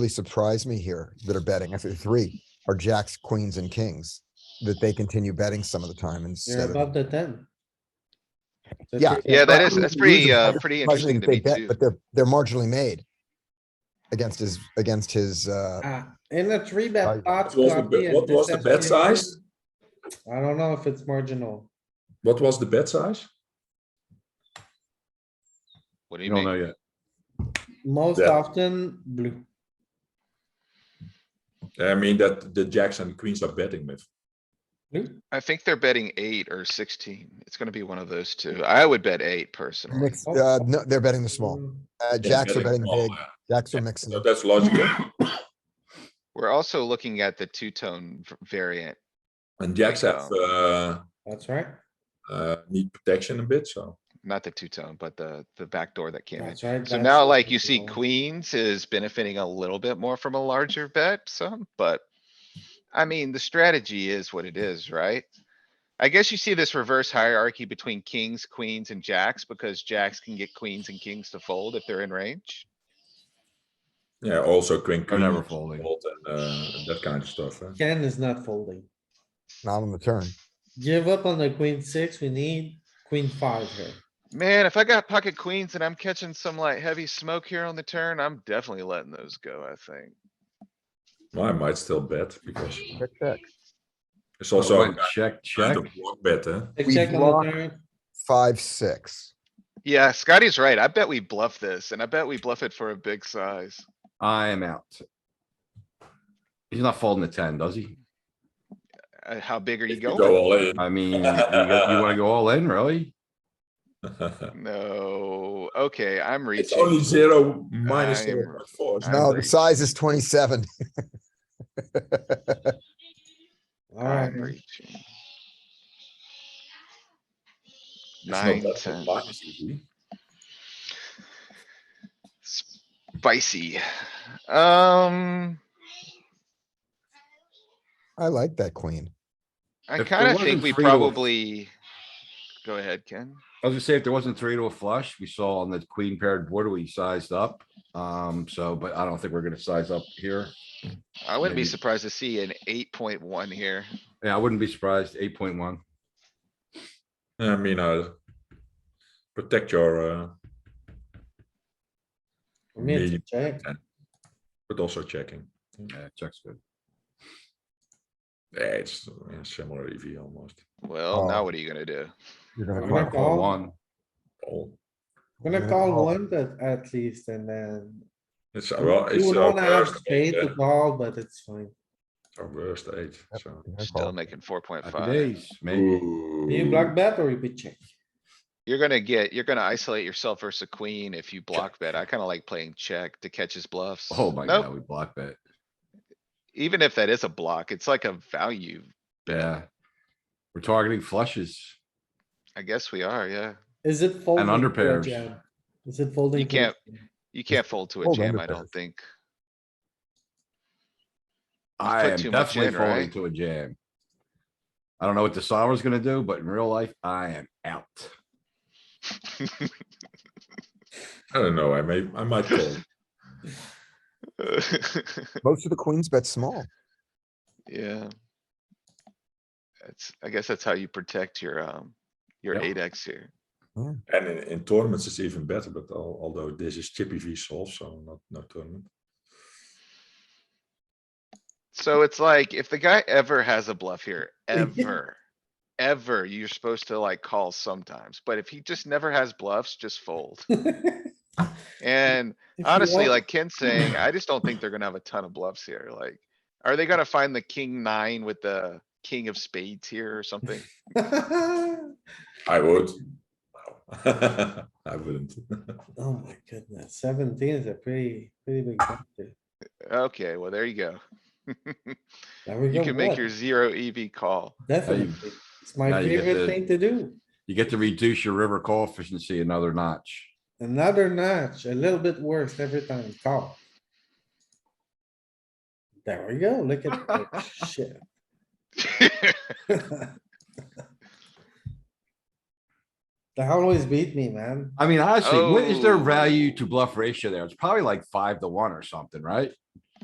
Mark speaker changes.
Speaker 1: surprise me here that are betting. I think three are jacks, queens and kings, that they continue betting some of the time
Speaker 2: You're
Speaker 1: instead of.
Speaker 2: above the ten. So
Speaker 1: Yeah.
Speaker 2: if you're
Speaker 3: Yeah, that
Speaker 2: above-
Speaker 3: is, that's
Speaker 1: Usually
Speaker 3: pretty,
Speaker 1: it's
Speaker 3: uh,
Speaker 1: better
Speaker 3: pretty
Speaker 1: surprised me
Speaker 3: interesting
Speaker 1: that
Speaker 3: to
Speaker 1: they
Speaker 3: me
Speaker 1: bet,
Speaker 3: too.
Speaker 1: But they're, they're marginally made. Against his, against his, uh,
Speaker 2: Ah, In the three
Speaker 1: Right.
Speaker 2: bet pot.
Speaker 4: What was the,
Speaker 2: Scotty,
Speaker 4: bet-
Speaker 2: is
Speaker 4: what was the
Speaker 2: this
Speaker 4: bet
Speaker 2: actually-
Speaker 4: size?
Speaker 2: I don't know if it's marginal.
Speaker 4: What was the bet size?
Speaker 3: What do
Speaker 4: You
Speaker 3: you
Speaker 4: don't know
Speaker 3: mean?
Speaker 4: yet.
Speaker 2: Most
Speaker 4: Yeah.
Speaker 2: often blue.
Speaker 4: I mean that the jacks and queens are betting with.
Speaker 2: Blue?
Speaker 3: I think they're betting eight or sixteen. It's gonna be one of those two. I would bet eight personally.
Speaker 1: mix- uh, no, they're betting the small.
Speaker 2: Mm,
Speaker 1: Uh,
Speaker 4: They're
Speaker 1: jacks are betting
Speaker 4: small,
Speaker 1: big,
Speaker 4: Oh, yeah.
Speaker 1: jacks are
Speaker 4: So
Speaker 1: mixing.
Speaker 4: that's logical.
Speaker 3: We're also looking at the two-tone v- variant.
Speaker 4: And jacks have,
Speaker 3: Bingo.
Speaker 4: uh,
Speaker 2: That's right.
Speaker 4: uh, need protection a bit, so.
Speaker 3: Not the two-tone, but the, the back door that came in.
Speaker 2: That's right.
Speaker 3: So
Speaker 2: that's
Speaker 3: now
Speaker 2: what
Speaker 3: like
Speaker 2: we
Speaker 3: you see
Speaker 2: call.
Speaker 3: queens is benefiting a little bit more from a larger bet some, but. I mean, the strategy is what it is, right? I guess you see this reverse hierarchy between kings, queens and jacks because jacks can get queens and kings to fold if they're in range.
Speaker 4: Yeah, also queen,
Speaker 5: They're
Speaker 4: queen.
Speaker 5: never folding.
Speaker 4: fold and, uh, and that kind of stuff. eh?
Speaker 2: Ken is not folding.
Speaker 1: Not on the turn.
Speaker 2: Give up on the queen six. We need queen five here.
Speaker 3: Man, if I got pocket queens and I'm catching some like heavy smoke here on the turn, I'm definitely letting those go, I think.
Speaker 4: Well, I might still bet because
Speaker 1: Check, check.
Speaker 4: it's also a
Speaker 5: Wait, Check, check.
Speaker 4: kind of block bet, eh?
Speaker 2: Check,
Speaker 1: We
Speaker 2: check on the
Speaker 1: block.
Speaker 2: turn.
Speaker 1: Five, six.
Speaker 3: Yeah, Scotty's right. I bet we bluff this and I bet we bluff it for a big size.
Speaker 5: I am out. He's not folding the ten, does he?
Speaker 3: Uh, How big are you
Speaker 4: If you
Speaker 3: going?
Speaker 4: Go all in.
Speaker 5: I mean, you go- you wanna go all in, really?
Speaker 3: No, okay, I'm
Speaker 4: It's
Speaker 3: reaching.
Speaker 4: only zero minus
Speaker 3: I'm-
Speaker 4: zero point four. it's
Speaker 3: I'm
Speaker 4: not
Speaker 1: No, the
Speaker 4: big.
Speaker 3: reaching.
Speaker 1: size is twenty-seven.
Speaker 2: Alright,
Speaker 3: I'm reaching.
Speaker 4: It's not
Speaker 3: Nine,
Speaker 4: that
Speaker 3: ten,
Speaker 4: minus, is it?
Speaker 3: spicy. Um,
Speaker 1: I like that queen.
Speaker 3: I
Speaker 5: If there
Speaker 3: kinda think
Speaker 5: wasn't
Speaker 3: we
Speaker 5: three to a-
Speaker 3: probably. Go ahead, Ken.
Speaker 5: I was gonna say, if there wasn't three to a flush, we saw on the queen paired board, we sized up. Um, so, but I don't think we're gonna size up here.
Speaker 3: I wouldn't be
Speaker 5: Maybe.
Speaker 3: surprised to see an eight point one here.
Speaker 5: Yeah, I wouldn't be surprised, eight point one.
Speaker 4: I mean, uh, protect your, uh,
Speaker 2: for me, it's a check.
Speaker 4: but also checking.
Speaker 5: Yeah, check's good.
Speaker 4: Yeah, it's uh, similar EV almost.
Speaker 3: Well, now
Speaker 1: Oh.
Speaker 3: what are you gonna do?
Speaker 1: You're gonna
Speaker 2: I'm
Speaker 1: call.
Speaker 2: gonna
Speaker 5: Call
Speaker 2: call.
Speaker 5: One,
Speaker 4: Oh,
Speaker 2: Gonna
Speaker 1: Yeah.
Speaker 2: call one but at least and then.
Speaker 4: It's, uh, well,
Speaker 2: You
Speaker 4: it's
Speaker 2: would
Speaker 4: our
Speaker 2: wanna have
Speaker 4: worst,
Speaker 2: spade
Speaker 4: yeah,
Speaker 2: to call, but it's fine.
Speaker 4: it's our worst eight, so.
Speaker 1: You're gonna
Speaker 3: Still
Speaker 1: call.
Speaker 3: making four point
Speaker 5: happy
Speaker 3: five.
Speaker 5: days, maybe.
Speaker 2: You block bet or you bet check?
Speaker 3: You're gonna get, you're gonna isolate yourself versus a queen if you block bet. I kinda like playing check to catch his bluffs.
Speaker 5: Oh my
Speaker 3: Nope,
Speaker 5: god, we blocked that.
Speaker 3: Even if that is a block, it's like a value.
Speaker 5: Yeah. We're targeting flushes.
Speaker 3: I guess we are, yeah.
Speaker 2: Is it folding?
Speaker 5: under
Speaker 2: to a
Speaker 5: pairs.
Speaker 2: jam? Is it folding?
Speaker 3: You
Speaker 2: to a
Speaker 3: can't-
Speaker 2: jam?
Speaker 3: You can't fold to a
Speaker 1: fold
Speaker 3: jam,
Speaker 1: under
Speaker 3: I
Speaker 1: pair.
Speaker 3: don't think.
Speaker 5: I
Speaker 3: put
Speaker 5: am
Speaker 3: too much
Speaker 5: definitely
Speaker 3: in, eh?
Speaker 5: falling
Speaker 3: right?
Speaker 5: to a jam. I don't know what the solver's gonna do, but in real life, I am out.
Speaker 4: I don't know, I may, I might call.
Speaker 1: Most of the queens bet small.
Speaker 3: Yeah. That's, I guess that's how you protect your, um, your
Speaker 5: Yep.
Speaker 3: eight X here.
Speaker 4: And in, in tournaments, it's even better, but al- although this is chip EV solve, so not, no tournament.
Speaker 3: So it's like, if the guy ever has a bluff here, ever, ever, you're supposed to like call sometimes, but if he just never has bluffs, just fold. And
Speaker 2: If you
Speaker 3: honestly,
Speaker 2: want-
Speaker 3: like Ken's saying, I just don't think they're gonna have a ton of bluffs here, like, are they gonna find the king nine with the king of spades here or something?
Speaker 4: I would. I wouldn't.
Speaker 2: Oh my goodness, seventeen is a pretty, pretty big factor.
Speaker 3: Okay, well, there you go.
Speaker 2: There we
Speaker 3: You
Speaker 2: go,
Speaker 3: can make
Speaker 2: what?
Speaker 3: your zero EV call.
Speaker 2: Definitely, it's
Speaker 5: now
Speaker 2: my
Speaker 5: you get
Speaker 2: favorite
Speaker 5: the-
Speaker 2: thing to do.
Speaker 5: You get to reduce your river call efficiency another notch.
Speaker 2: Another notch, a little bit worse every time, call. There we go, look at, oh, shit. They always beat me, man.
Speaker 5: I mean, honestly, what is their value
Speaker 3: Oh.
Speaker 5: to bluff ratio there? It's probably like five to one or something, right?